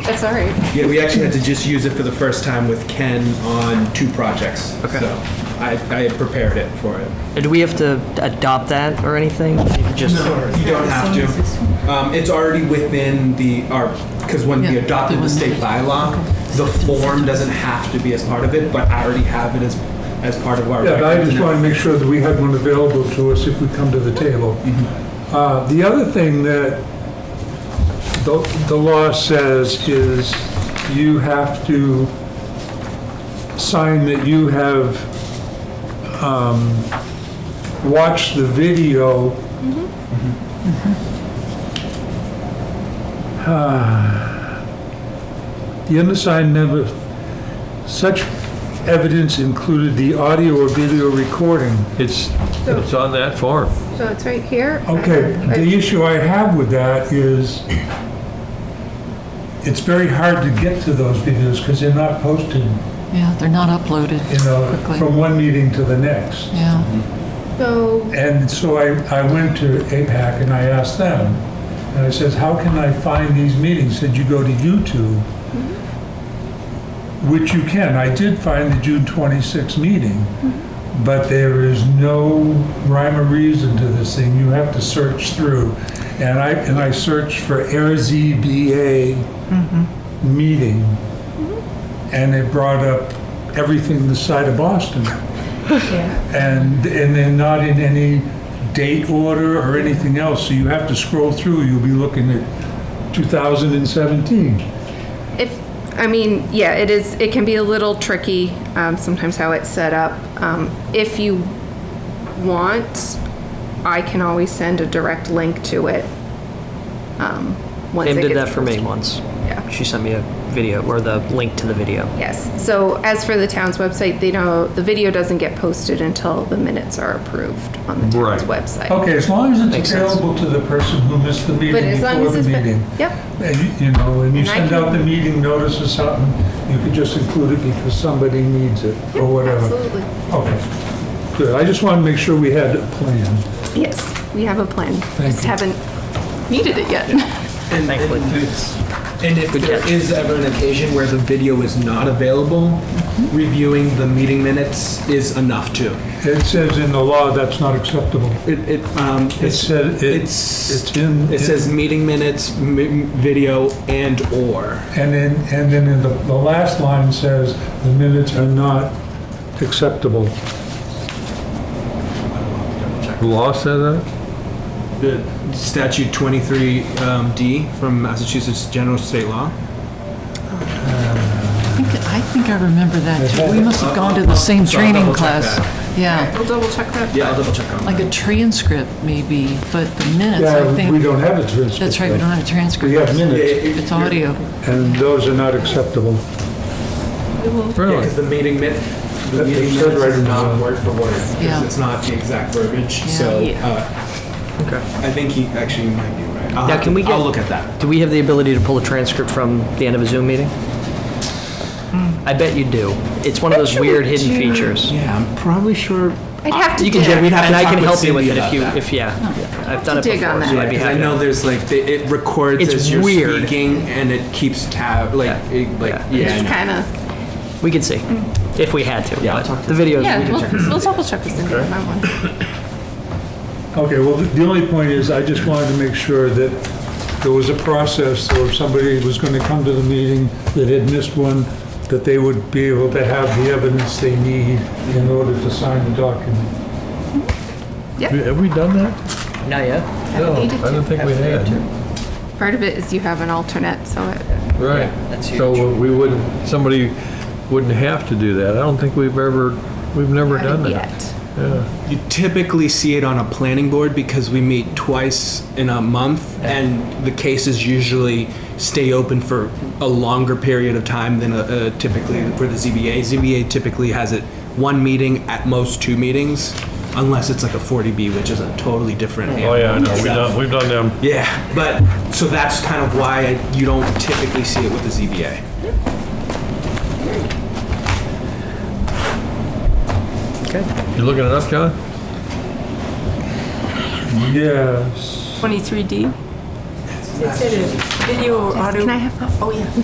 That's all right. Yeah, we actually had to just use it for the first time with Ken on two projects. Okay. So I, I had prepared it for it. Do we have to adopt that or anything? Just You don't have to. Um, it's already within the, our, because when we Yeah, adopted the the one state that- bylaw, the form doesn't have to be as part of it, but I already have it as, as part of our. Yeah, but I records just now. want to make sure that we had one available to us if we come to the table. Mm-hmm. Uh, The other thing that the the law says is you have to sign that you have um, watched the video. Mm-hmm. Mm-hmm. Ah. The undersigned never, such evidence included the audio or video recording. It's, it's on that form. So it's right here. Okay, the issue I have with that is it's very hard to get to those videos because they're not posted, you Yeah, they're not uploaded know, quickly. from one meeting to the next. Yeah, So, And so I, I went to APAC and I asked them, and I says, how can I find these meetings? Said, you go to YouTube, which you can. I did find the June 26 meeting, but there is no rhyme or reason to this thing. You have to search through. And I, and I searched for AirZBA meeting, and it brought up everything the side of Boston. And, and they're not in any date order or anything else, so you have to scroll through, you'll be looking at 2017. if, I mean, yeah, it is, it can be a little tricky, um, sometimes how it's set up. Um, if you want, I can always send a direct link to it. Um, once Pam it did gets that for me posted. once. Yeah. She sent me a video or the link to the video. Yes. So as for the town's website, they know the video doesn't get posted until the minutes are approved on the town's Right. website. Okay, as long as Makes it's sense. available to the person who missed the But meeting as long before as the it's been, meeting. yep, And, you- you know, and you And I send out can- the meeting notice or something, you could just include it because somebody needs it, or whatever. absolutely. Okay, good, I just want to make sure we had a plan. Yes, we have a plan. Thank Just you. haven't needed it yet. And, Thankfully. and it's- and if Good there catch. is ever an occasion where the video is not available, reviewing the meeting minutes is enough too. It says in the law that's not acceptable. It, it, um, It it's, says, it's- it's in. it says meeting minutes, m- video, and or. And then, and then in the, the last line says, the minutes are not acceptable. The law said that? The statute 23D from Massachusetts General State Law. I think, I think I remember that too. We must have gone to the same So I'll training double check class. Yeah, We'll double check that. Yeah, I'll double check on like that. a transcript maybe, but the minutes, I Yeah, we think, don't have a transcript. that's right, we don't have a We have transcript. minutes, It's audio. and those are not acceptable. Yeah, because the meeting min, the That- meeting it said minutes right is in not the- word for word, because Yeah. it's not the exact verbiage, Yeah. so. Yeah. uh, Okay. I think he, actually, you might be right. I'll Now, have can to- we get- I'll look at that. Do we have the ability to pull a transcript from the end of a Zoom meeting? Hmm. I bet you do. It's one of those weird hidden features. Yeah, I'm probably sure. I'd have to You can, dig. we'd have to and I talk can with help you with Cindy it if about you, that. if, yeah. I've done it to dig on before, so that. I'd be Yeah, 'cause I happy. know there's like, they- it records It's as you're weird. speaking, and it keeps tab, like, it- like, Yeah. yeah. I It's know. kind of, We could see, if we had to. Yeah, I'll but talk to The videos, yeah, we could check. we'll, we'll double check with Cindy on that one. Okay, well, the the only point is, I just wanted to make sure that there was a process, so if somebody was going to come to the meeting that had missed one, that they would be able to have the evidence they need in order to sign the document. Have we done that? Not yet. No, I needed to. don't think we had. Part of it is you have an alternate, so it, Right. that's So we wouldn't, somebody wouldn't have to do that. I don't think we've ever, we've never done haven't that. yet. You typically see it on a planning board because we meet twice in a month, and the cases usually stay open for a longer period of time than uh, uh, typically for the ZBA. ZBA typically has it one meeting, at most two meetings, unless it's like a 40B, which is a totally different Oh, animal. yeah, I know. We've done, we've done them. Yeah, but, so that's kind of why you don't typically see it with the ZBA. You looking it up, John? Yes. 23D? It said a video or audio. Can I have that?